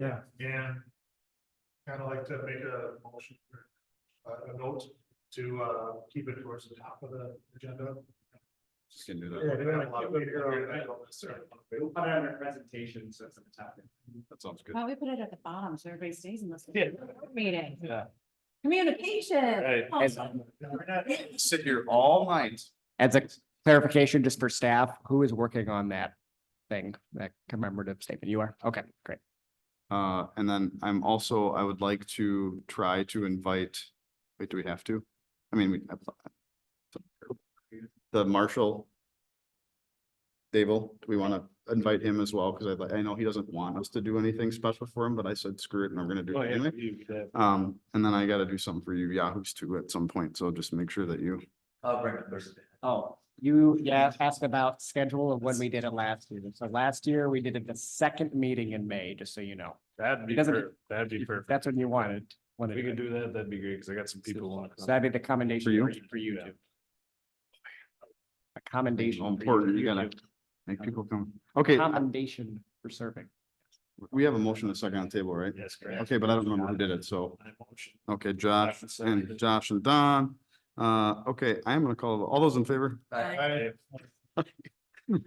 Yeah. And kind of like to make a motion, uh, a note to, uh, keep it towards the top of the agenda. Just gonna do Yeah, that. we have a lot of people here. I don't necessarily want to wait. We'll put it on our presentation, so it's at the top. That sounds good. Why don't we put it at the bottom so everybody stays in this Yeah. meeting? Yeah. Communication. Right. Awesome. We're not- Sit here all night. As a clarification, just for staff, who is working on that thing, that commemorative statement? You are? Okay, great. Uh, and then I'm also, I would like to try to invite, wait, do we have to? I mean, we. The marshal. Dable, do we want to invite him as well? Because I, like- I know he doesn't want us to do anything special for him, but I said screw it and we're gonna Oh, do it anyway. Um, and then I gotta do something for you Yahoos too at some point, so just make sure that you, I'll bring the person. Oh, you, yeah, asked about schedule of when we did it last year. So last year, we did it the second meeting in May, just so you know. That'd be, doesn't- per- that'd be perfect. That's when you wanted. If we could do that, that'd be great, because I got some people on. So that'd be the commendation For you? for you- for you Yeah. too. A commendation. how for you. important, you gotta make people come. Okay, I- Commendation for serving. we have a motion and a second on the table, right? Yes, correct. Okay, but I don't remember who did it, so. My motion. Okay, Josh Josh and Sarah. and Josh and Don. Uh, okay, I am gonna call, all those in favor? I-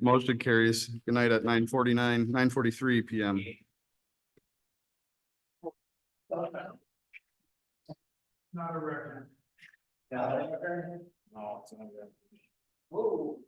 Motion carries. Good night at nine forty-nine, nine forty-three PM. Not a record. No, it's not good. Whoa.